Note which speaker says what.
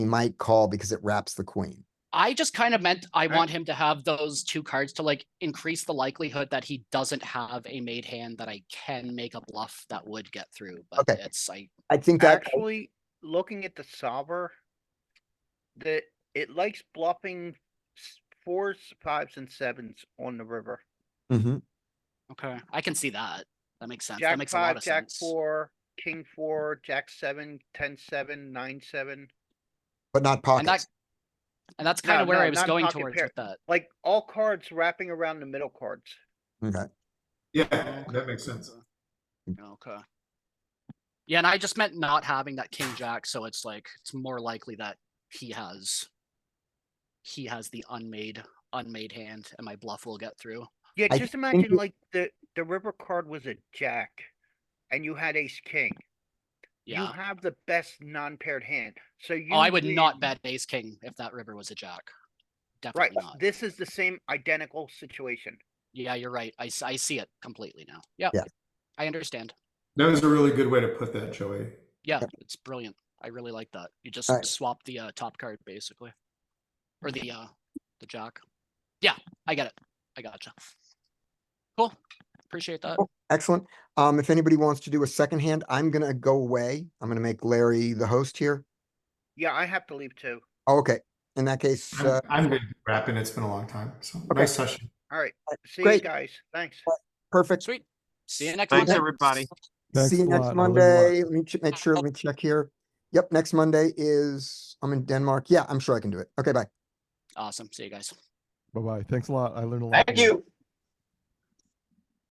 Speaker 1: he might call because it wraps the queen.
Speaker 2: I just kind of meant I
Speaker 3: Right.
Speaker 2: want him to have those two cards to like increase the likelihood that he doesn't have a made hand that I can make a bluff that would get through, but
Speaker 1: Okay.
Speaker 2: it's I
Speaker 1: I think that
Speaker 3: Actually, looking at the solver. The, it likes bluffing s- fours, fives and sevens on the river.
Speaker 1: Mhm.
Speaker 2: okay, I can see that. That makes sense. That
Speaker 3: Jack
Speaker 2: makes a lot
Speaker 3: five,
Speaker 2: of
Speaker 3: jack
Speaker 2: sense.
Speaker 3: four, king four, jack seven, ten, seven, nine, seven.
Speaker 1: but not
Speaker 2: And that
Speaker 1: pockets.
Speaker 2: and that's
Speaker 3: No,
Speaker 2: kind of where
Speaker 3: no,
Speaker 2: I was
Speaker 3: not
Speaker 2: going
Speaker 3: pocket
Speaker 2: towards
Speaker 3: pair.
Speaker 2: with that.
Speaker 3: Like all cards wrapping around the middle cards.
Speaker 1: Okay.
Speaker 4: Yeah, that makes sense.
Speaker 2: Okay. Yeah, and I just meant not having that king jack, so it's like it's more likely that he has he has the unmade unmade hand and my bluff will get through.
Speaker 3: Yeah,
Speaker 1: I
Speaker 3: just
Speaker 1: think
Speaker 3: imagine
Speaker 1: it-
Speaker 3: like the, the river card was a jack. And you had ace, king. You
Speaker 2: Yeah.
Speaker 3: have the best non-paired hand, so you.
Speaker 2: Oh, I would not
Speaker 3: win.
Speaker 2: bet ace king if that river was a jack.
Speaker 3: Right,
Speaker 2: Definitely not.
Speaker 3: this is the same identical situation.
Speaker 2: Yeah, you're right. I, s- I see it completely now. Yeah.
Speaker 1: Yeah.
Speaker 2: I understand.
Speaker 4: That was a really good way to put that, Joey.
Speaker 2: Yeah, it's brilliant. I really like that. You just
Speaker 1: Alright.
Speaker 2: swap the uh, top card basically. Or the uh the jack. Yeah, I get it. I gotcha. Cool. Appreciate that.
Speaker 1: Cool. Excellent. Um, if anybody wants to do a second hand, I'm gonna go away. I'm gonna make Larry the host here.
Speaker 3: Yeah, I have to leave too.
Speaker 1: Okay, in that case,
Speaker 4: I'm,
Speaker 1: uh,
Speaker 4: I'm good wrapping. It's been a long time. So nice session.
Speaker 3: Alright, see you
Speaker 1: great.
Speaker 3: guys, thanks.
Speaker 1: perfect.
Speaker 2: Sweet. See you next
Speaker 5: Thanks,
Speaker 2: Monday.
Speaker 5: everybody.
Speaker 1: See you
Speaker 6: a
Speaker 1: next
Speaker 6: lot. I'll leave you alone.
Speaker 1: Monday. Let me ch- make sure, let me check here. Yep, next Monday is, I'm in Denmark. Yeah, I'm sure I can do it. Okay, bye.
Speaker 2: Awesome. See you guys.
Speaker 6: Bye bye. Thanks a lot. I learned a lot. today.